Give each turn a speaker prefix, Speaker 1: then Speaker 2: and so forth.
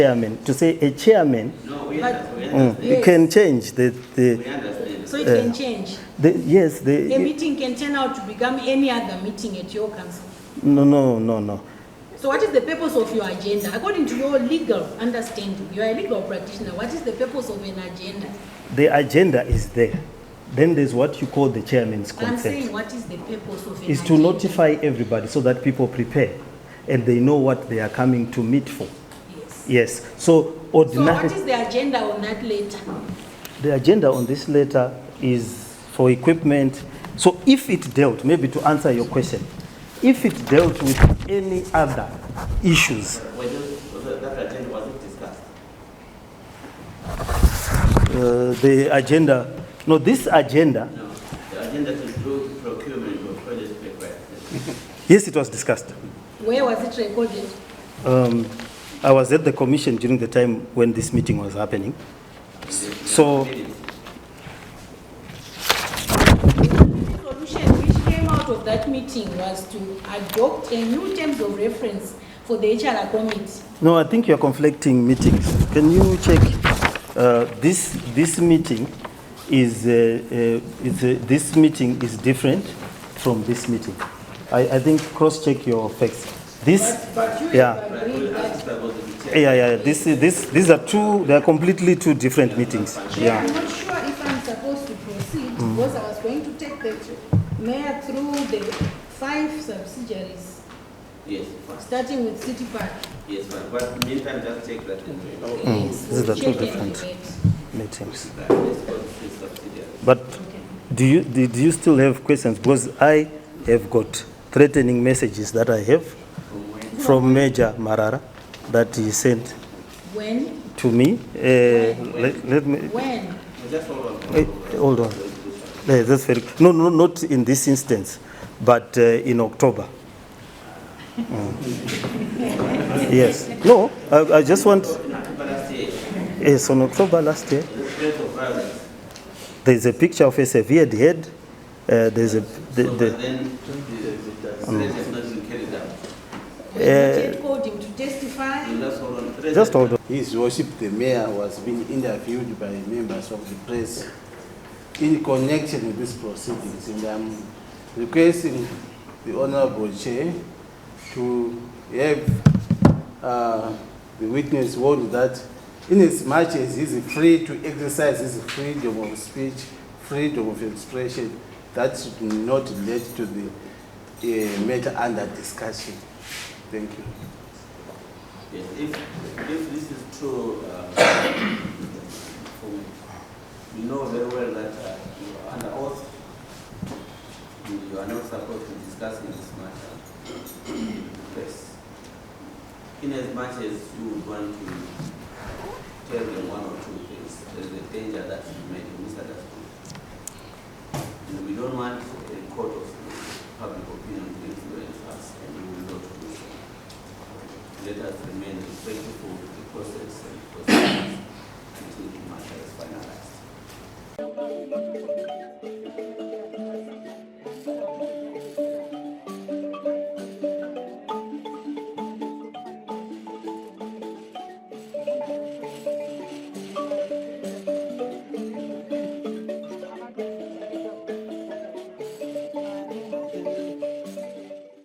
Speaker 1: chairman, to say a chairman,
Speaker 2: No, we understand.
Speaker 1: mm, you
Speaker 3: Yes.
Speaker 1: can change the,
Speaker 2: We
Speaker 1: the,
Speaker 2: understand.
Speaker 3: So it can change.
Speaker 1: the yes,
Speaker 3: A
Speaker 1: the,
Speaker 3: meeting can turn out to become any other meeting at your council.
Speaker 1: no, no, no, no.
Speaker 3: So what is the purpose of your agenda? According to your legal understanding, you are a legal practitioner, what is the purpose of an agenda?
Speaker 1: The agenda is there. Then there's what you call the chairman's
Speaker 3: I'm saying,
Speaker 1: conference.
Speaker 3: what is the purpose of an agenda?
Speaker 1: Is to notify everybody so that people prepare and they know what they are coming to meet for.
Speaker 3: Yes.
Speaker 1: Yes, so
Speaker 3: So what
Speaker 1: ordinary,
Speaker 3: is the agenda on that later?
Speaker 1: the agenda on this letter is for equipment. So if it dealt, maybe to answer your question, if it dealt with any other issues,
Speaker 2: Were those- was that that agenda was it discussed?
Speaker 1: uh, the agenda, no, this agenda,
Speaker 2: No, the agenda to improve procurement of project requests.
Speaker 1: yes, it was discussed.
Speaker 3: Where was it recorded?
Speaker 1: Um, I was at the commission during the time when this meeting was happening. So-
Speaker 3: The solution which came out of that meeting was to adopt a new terms of reference for the HRA committee.
Speaker 1: No, I think you're conflicting meetings. Can you check, uh, this, this meeting is, uh, uh, is, uh, this meeting is different from this meeting. I, I think, cross-check your facts. This,
Speaker 3: But you
Speaker 1: yeah,
Speaker 3: have
Speaker 2: But
Speaker 3: agreed
Speaker 2: we'll
Speaker 3: that
Speaker 2: ask about the
Speaker 1: yeah, yeah, yeah. this, this, these are two, they are completely two different meetings,
Speaker 4: Chair,
Speaker 1: yeah. Mm.
Speaker 4: I'm not sure if I'm supposed to proceed because I was going to take the tr- mayor through the five subsidiaries,
Speaker 2: Yes, fine.
Speaker 4: starting with City Park.
Speaker 2: yes, but but meantime, just take that. and-
Speaker 1: Oh.
Speaker 3: is
Speaker 1: these are two
Speaker 3: check and
Speaker 1: different.
Speaker 3: debate.
Speaker 1: Meetings.
Speaker 2: That is called the subsidiary.
Speaker 1: But do you, do do you still have questions? Because I have got threatening messages that I have from Major Marara that he sent
Speaker 3: When,
Speaker 1: to me. Eh, Let let me,
Speaker 3: when?
Speaker 2: Just hold on.
Speaker 1: eh, hold on. Eh, That's very, no, no, not in this instance, but eh, in October. Mm. Yes, no, I I just want,
Speaker 2: But I say,
Speaker 1: yes, on October last year,
Speaker 2: the threat of violence.
Speaker 1: there's a picture of a severed head, eh, there's a, the- the-
Speaker 2: So,
Speaker 1: Um,
Speaker 2: but then the threat has not been carried out.
Speaker 4: We have called him to testify.
Speaker 2: You just hold on. Threat
Speaker 1: just
Speaker 2: has-
Speaker 1: hold on.
Speaker 5: His Worship the Mayor was being interviewed by members of the press in connection with these proceedings. And I'm requesting the Honorable Chair to have uh, the witness warned that in as much as he's free to exercise his freedom of speech, freedom of expression, that should not lead to the uh, matter under discussion. Thank you.
Speaker 2: Yes, if, if this is true, uh, for- you know very well that uh, you are under oath, You- you are not supposed to discuss in this matter. Yes. In as much as you would want to tell them one or two things, there is a danger that you may be misunderstood. And we don't want a court of public opinion to influence us, and we will not do so let us remain respectful to the process and process until the matter is finalized.